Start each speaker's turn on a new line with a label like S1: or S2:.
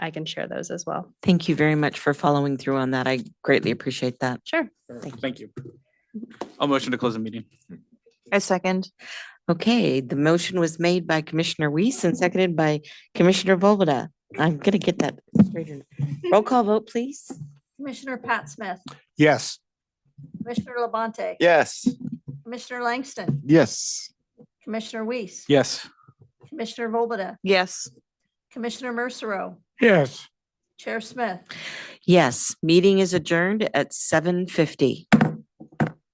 S1: I can share those as well.
S2: Thank you very much for following through on that. I greatly appreciate that.
S1: Sure.
S3: Thank you. I'll motion to close the meeting.
S4: I second.
S2: Okay, the motion was made by Commissioner Weiss and seconded by Commissioner Volbada. I'm gonna get that straightened. Roll call vote, please.
S5: Commissioner Pat Smith,
S6: Yes.
S5: Commissioner Labonte.
S3: Yes.
S5: Commissioner Langston,
S6: Yes.
S5: Commissioner Weiss.
S3: Yes.
S5: Commissioner Volbada,
S4: Yes.
S5: Commissioner Mercero,
S6: Yes.
S5: Chair Smith.
S2: Yes, meeting is adjourned at seven fifty.